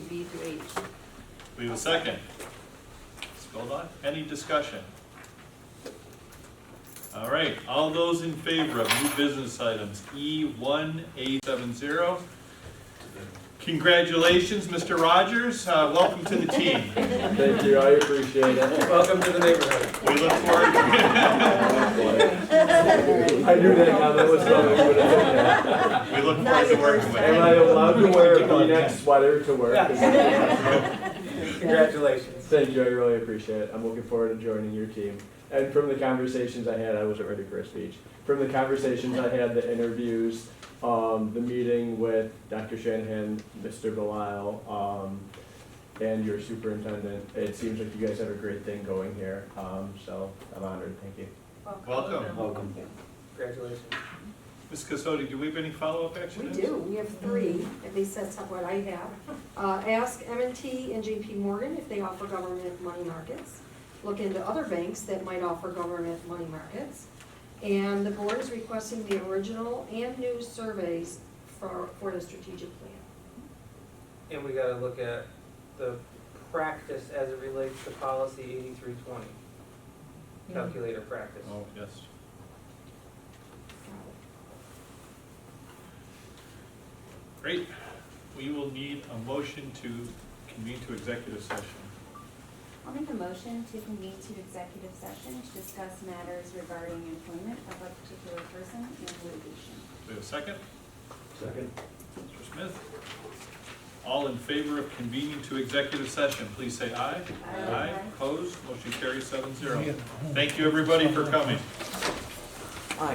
Great. We have a second. Hold on, any discussion? All right, all those in favor of new business items, E one eight seven zero. Congratulations, Mr. Rogers, uh, welcome to the team. Thank you, I appreciate it. Welcome to the neighborhood. We look forward to I knew that comment was coming. when I did that. we look forward to working with you. Am I allowed to wear a V-neck sweater to work? Congratulations. Thank you, I really appreciate it. I'm looking forward to joining your team. And from the conversations I had, I wasn't ready for a speech. From the conversations I had, the interviews, um, the meeting with Dr. Shanahan, Mr. Belisle, um, and your superintendent, it seems like you guys have a great thing going here. Um, so I'm honored, thank you. Welcome. Welcome. Congratulations. Ms. Casodi, do we have any follow-up action? We items? do, we have three, at least that's what I have. Uh, Ask m and T and JP Morgan if they offer government money markets. Look into other banks that might offer government money markets. And the board is requesting the original and new surveys for, for the strategic plan. And we gotta look at the practice as it relates to policy eighty-three twenty, calculator practice. Oh, yes. Great. We will need a motion to convene to executive session. I'll make a motion to convene to executive session to discuss matters regarding employment of a particular person and litigation. Do we have a second? Second. Mr. Smith? All in favor of convening to executive session, please say aye. Aye. Opposed? Motion carries seven zero. Thank you, everybody, for coming.